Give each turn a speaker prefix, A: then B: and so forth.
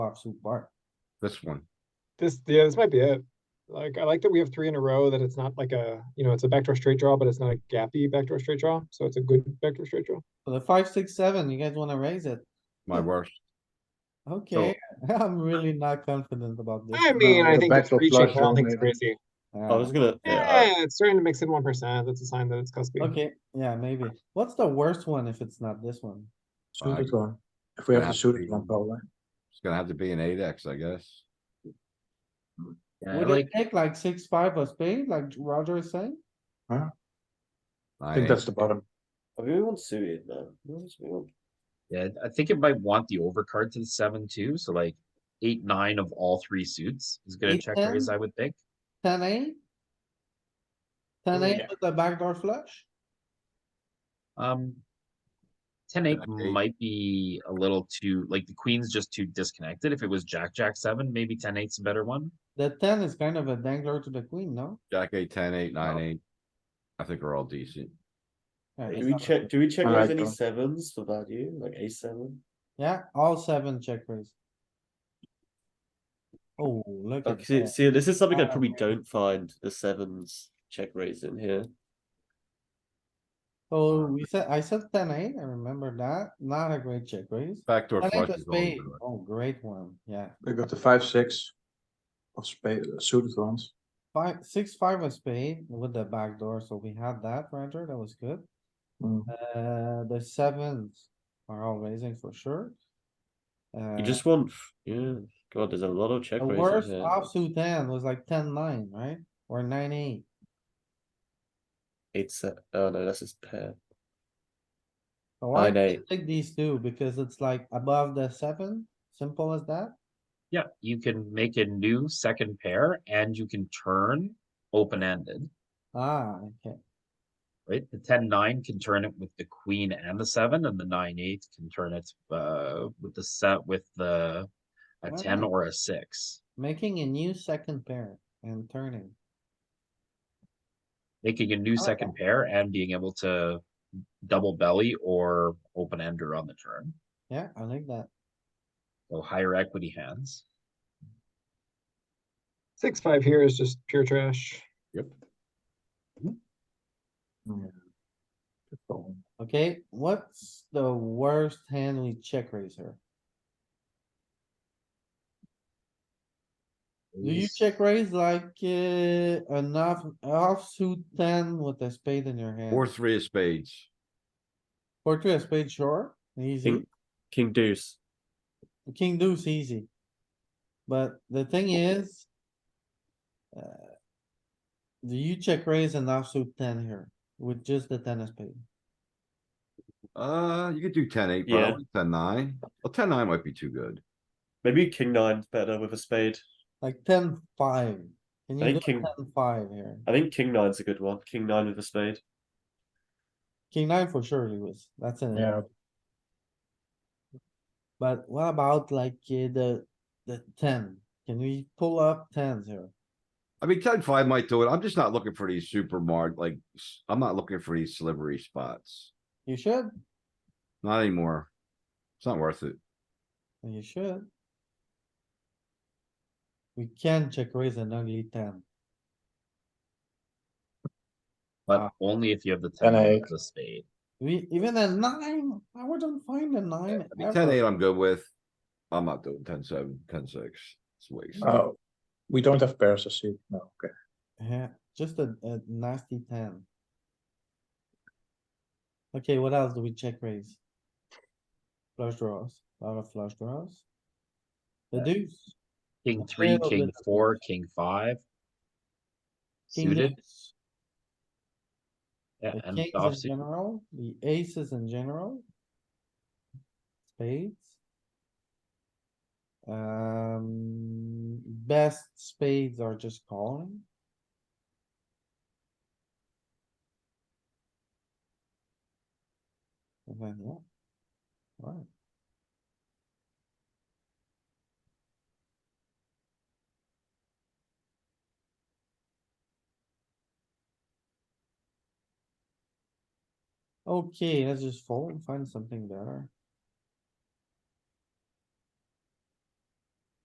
A: Bar, suit bar.
B: This one.
C: This, yeah, this might be it. Like, I like that we have three in a row, that it's not like a, you know, it's a backdoor straight draw, but it's not a gappy backdoor straight draw, so it's a good backdoor straight draw.
A: So the five, six, seven, you guys wanna raise it?
B: My worst.
A: Okay, I'm really not confident about this.
C: I mean, I
D: the
C: think it's
D: backdoor
C: reaching,
D: flush
C: but I don't
D: draw
C: think it's
D: maybe.
C: crazy.
E: I was
A: Yeah.
E: gonna. Yeah.
C: Yeah, it's starting to mix in one percent, that's a sign that it's cuspy.
A: Okay, yeah, maybe. What's the worst one if it's not this one?
B: Five.
D: Suited one. If we have the
B: Perhaps
D: suited
B: we-
D: one, probably.
B: It's gonna have to be an eight X, I guess.
A: Would it take like six, five of spade, like Roger is saying?
D: I think
B: Nine,
D: that's
B: eight.
D: the bottom.
E: I mean, we want suited, man. We want suited.
F: Yeah, I think it might want the overcard to the seven too, so like eight, nine of all three suits is gonna
A: Eight,
F: check raise,
A: ten?
F: I would think.
A: Ten eight? Ten eight
C: Yeah.
A: with the backdoor flush?
F: Um. Ten eight
B: Jack eight.
F: might be a little too, like the queen's just too disconnected. If it was jack, jack seven, maybe ten eight's a better one.
A: The ten is kind of a dangler to the queen, no?
B: Jack eight, ten, eight, nine,
F: Oh.
B: eight. I think we're all decent.
A: Yeah, it's
E: Do we
A: not-
E: check? Do we check
D: I
E: raise
D: like
E: any
D: them.
E: sevens for value, like a seven?
A: Yeah, all seven check raise. Oh, look at
E: Like, see,
A: that.
E: see, this is something I
A: Uh,
E: probably don't find the sevens check raise in here.
A: So we Oh, said, I said ten eight, I remember that. Not a great check raise.
B: Backdoor
A: I like
B: flush
A: a
B: is always
A: spade.
B: good.
A: Oh, great one, yeah.
D: We got the five, six of spade, suited ones.
A: Five, six, five of spade with the back door, so we had that, Roger, that was good.
D: Mm.
A: Uh, the sevens are all raising for sure. Uh,
E: You just want, f- yeah. God, there's a lot of check
A: the
E: raises
A: worst
E: here.
A: offsuit hand was like ten nine, right? Or nine eight.
E: Eight se- oh no, that's his pair.
A: So I
E: Nine eight.
A: pick these two because it's like above the seven, simple as that.
F: Yeah, you can make a new second pair and you can turn open-ended,
A: Ah, okay,
F: right? The ten nine can turn it with the queen and the seven, and the nine eight can turn it uh with the set with the a ten
A: Wow.
F: or a six.
A: making a new second pair and turning.
F: making a new
A: like
F: second pair and being able to double belly or open ender on the turn.
A: Yeah, I like that.
F: So higher equity hands.
C: Six, five here is just pure trash.
D: So,
A: Okay, what's the worst hand we check raise here? Do you
F: Ace-
A: check raise like uh, enough offsuit ten with a spade in your hand?
B: Or three of spades.
A: Or two a spade sure, easy.
E: King, king deuce.
A: King deuce easy. But the thing is. uh, Do you check raise an offsuit ten here with just the ten of spade?
B: Uh, you could do ten, eight,
E: Yeah.
B: probably ten, nine. Well, ten, nine might be too good.
E: Maybe king nine's better with a spade.
A: Like ten five? Can
E: I
A: you do
E: think king-
A: ten five here?
E: I think king nine's a good one. King nine with a spade.
A: King nine for sure, Lewis. That's it.
D: Yeah,
A: But what about like uh, the, the ten? Can we pull up tens here?
B: I mean, ten, five might do it. I'm just not looking for these super marked, like, s- I'm not looking for these slivery spots.
A: You should,
B: Not anymore. It's not worth it.
A: you should. We can check raise an ugly ten.
F: But
A: Ah.
F: only if you have the
D: Ten
F: ten
D: eight.
F: of the spade.
A: We, even a nine, I wouldn't find a nine.
B: I mean, ten,
A: ever.
B: eight, I'm good with. I'm not doing ten, seven, ten, six. It's a waste.
D: oh, we don't have pairs, I see. No, okay.
A: Yeah, just a, a nasty ten. Okay, what else do we check raise? Flush draws, a lot of flush draws. The deuce.
F: King
A: A
F: three,
A: little
F: king
A: bit of
F: four,
A: both.
F: king five.
A: king
F: Suited,
A: deuce.
F: yeah,
A: The
F: and
A: kings in
F: offsuit.
A: general, the aces in general. Spades. Um, best spades are just calling. And then, yeah. Right. Okay, let's just fold and find something better.